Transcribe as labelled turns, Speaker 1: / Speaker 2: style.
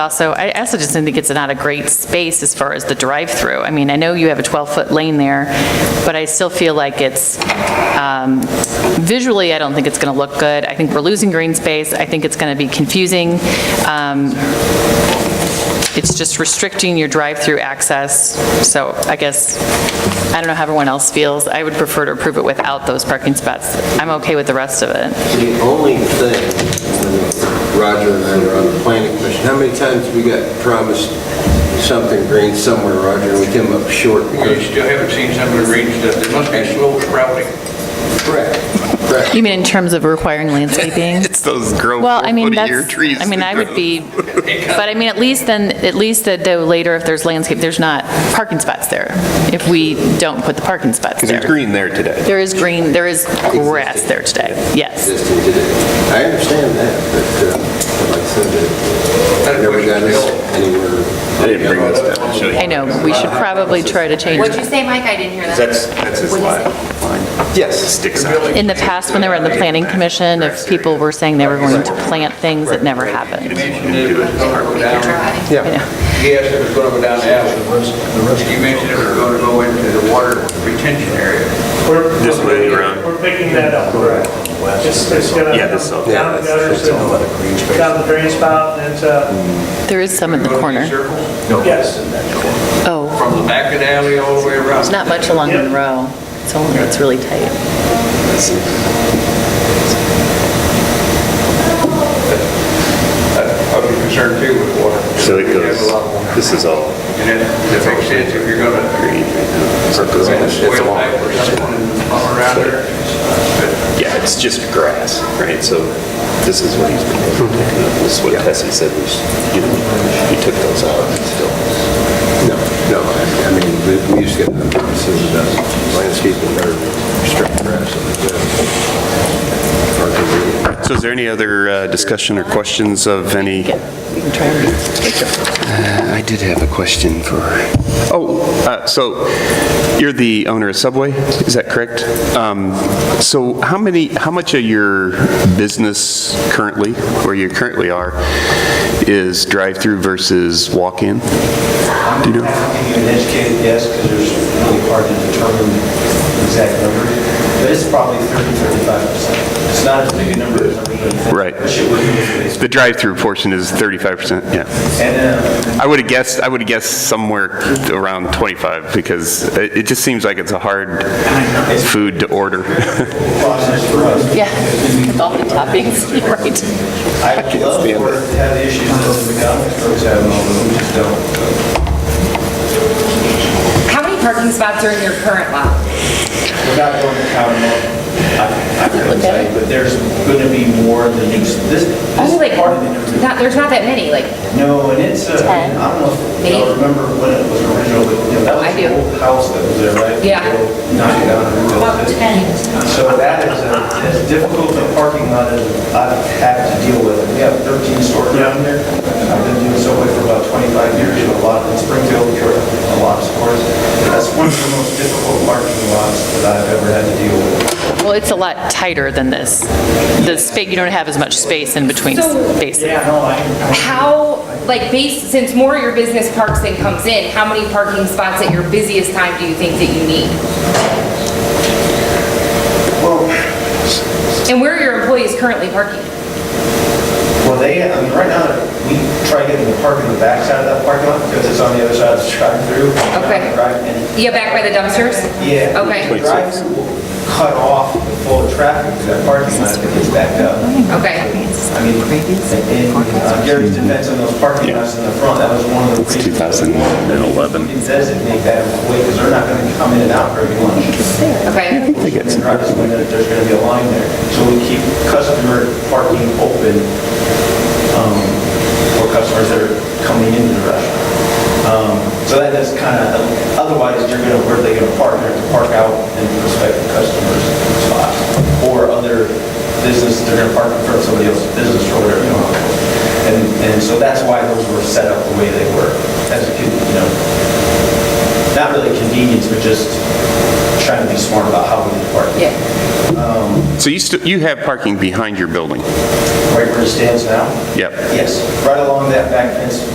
Speaker 1: Also, I also just think it's not a great space as far as the drive-through. I mean, I know you have a 12-foot lane there, but I still feel like it's, um, visually, I don't think it's going to look good. I think we're losing green space. I think it's going to be confusing. Um, It's just restricting your drive-through access. So I guess, I don't know how everyone else feels. I would prefer to approve it without those parking spots. I'm okay with the rest of it.
Speaker 2: The only thing, when Roger and I were on the planning commission, how many times we got promised something green somewhere, Roger, and we came up short?
Speaker 3: You still haven't seen some of the green stuff. There must be slow sprouting.
Speaker 2: Correct, correct.
Speaker 1: You mean in terms of requiring landscaping?
Speaker 4: It's those grow
Speaker 1: Well, I mean,
Speaker 4: four-foot-a-year
Speaker 1: that's,
Speaker 4: trees.
Speaker 1: I mean, I would be,
Speaker 3: It comes-
Speaker 1: but I mean, at least then, at least that though later, if there's landscape, there's not parking spots there, if we don't put the parking spots
Speaker 4: Because it's
Speaker 1: there.
Speaker 4: green there today.
Speaker 1: There is green, there is grass there today, yes.
Speaker 2: Existing today. I understand that, but uh, like I said, it never got us anywhere.
Speaker 4: I didn't bring this down to show you.
Speaker 1: I know, we should probably try to change
Speaker 5: What'd you
Speaker 1: it.
Speaker 5: say, Mike? I didn't hear that.
Speaker 4: That's, that's his
Speaker 5: What'd you
Speaker 4: line.
Speaker 5: say?
Speaker 2: Yes.
Speaker 4: Sticks out.
Speaker 1: In the past, when they were in the planning commission, if people were saying they were going to plant things, it never happened.
Speaker 3: Mentioned it was gonna go down.
Speaker 1: Yeah.
Speaker 3: Yes, it was gonna go down the alley. You mentioned it was gonna go into the water retention area.
Speaker 4: This way around.
Speaker 6: We're picking that up. It's, it's gonna.
Speaker 4: Yeah, this all-
Speaker 6: Down the gutters, and down the drain spout, and it's, uh,
Speaker 1: There is some in the corner.
Speaker 3: Circles
Speaker 6: yes.
Speaker 1: Oh,
Speaker 3: From the back of the alley all the way around.
Speaker 1: there's not much along Monroe. It's only, it's really tight.
Speaker 3: I'd be concerned too with water.
Speaker 4: So it
Speaker 3: You have a
Speaker 4: goes,
Speaker 3: lot more.
Speaker 4: this is all
Speaker 3: And it it makes sense if you're gonna.
Speaker 4: green. So it goes on this-
Speaker 3: Well, back or something and come around there. But
Speaker 4: Yeah, it's just grass, right? So this is what he's been doing. This is what Tessie said, we, should- you know, he took those out and still.
Speaker 2: No, no, I I mean, we- we used to get the promises about landscaping or strict grass. and, uh, or-
Speaker 4: So is there any other uh, discussion or questions of any?
Speaker 1: We can try and-
Speaker 4: I did have a question for, oh, uh, so you're the owner of Subway, is that correct? Um, So how many, how much of your business currently, where you currently are, is drive-through versus walk-in? Do you know?
Speaker 7: I think an educated guess, because there's really hard to determine the exact number, but it's probably 30, 35%. It's not as big a number as everybody thinks.
Speaker 4: Right.
Speaker 7: Which it would be if
Speaker 4: The drive-through portion is 35%, yeah.
Speaker 7: it's- And, uh,
Speaker 4: I would have guessed, I would have guessed somewhere around 25, because it it just seems like it's a hard food to order.
Speaker 7: process for us,
Speaker 1: Yeah, with all the toppings, you're right.
Speaker 7: I would love for it to have the issues that the McDonald's folks have, although we just don't.
Speaker 5: How many parking spots are in your current lot?
Speaker 7: We're not going to count them all. I- I couldn't say, but there's going to be more than you, this,
Speaker 5: Only Oh, like,
Speaker 7: this part of the neighborhood
Speaker 5: not, there's not that many, like,
Speaker 7: No, and it's, uh, I
Speaker 1: Ten.
Speaker 7: don't know if y'all
Speaker 5: Maybe.
Speaker 7: remember when it was original, but you know, that
Speaker 5: Oh, I
Speaker 7: was
Speaker 5: do.
Speaker 7: the old house that was there, right?
Speaker 5: Yeah.
Speaker 7: The old Knocked down and rebuilt it. So that is a- as difficult a parking lot as I've had to deal with. We have 13 stores down there. I've been doing Subway for about 25 years, you know, a lot in Springfield, there are a lot of stores. That's one of the most difficult parking lots that I've ever had to deal with.
Speaker 1: Well, it's a lot tighter than this. The space, you don't have as much space in between
Speaker 5: So-
Speaker 1: spaces.
Speaker 7: Yeah, no, I,
Speaker 5: how, like, based, since more of your business parks and comes in, how many parking spots at your busiest time do you think that you need? And where are your employees currently parking?
Speaker 7: Well, they, I mean, right now, we try to get them to park in the backside of that parking lot because it's on the other side of the drive-through.
Speaker 5: Okay.
Speaker 7: Right, and,
Speaker 5: Yeah, back by the dumpsters?
Speaker 7: yeah. The
Speaker 5: Okay,
Speaker 7: drive-through will cut off the flow of traffic to that parking lot if it gets backed up.
Speaker 5: okay.
Speaker 7: I mean, in uh, Gary's defense on those parking lots in the front, that was one of the reasons.
Speaker 4: 2011.
Speaker 7: It designate that way because they're not going to come in and out very much.
Speaker 5: Okay,
Speaker 7: They get some. Drivers, when there- there's going to be a line there. So we keep customer parking open um, for customers that are coming into the restaurant. Um, So that is kind of, otherwise, you're going to, where they going to park? They're going to park out in prospective customers' spots or other business, they're going to park in front of somebody else's business or whatever. you know. And, and so that's why those were set up the way they were, as a, con- you know, not really convenience, but just trying to be smart about how we park.
Speaker 5: yeah.
Speaker 4: So you still, you have parking behind your building?
Speaker 7: Right where it stands now?
Speaker 4: Yep.
Speaker 7: Yes, right along that back fence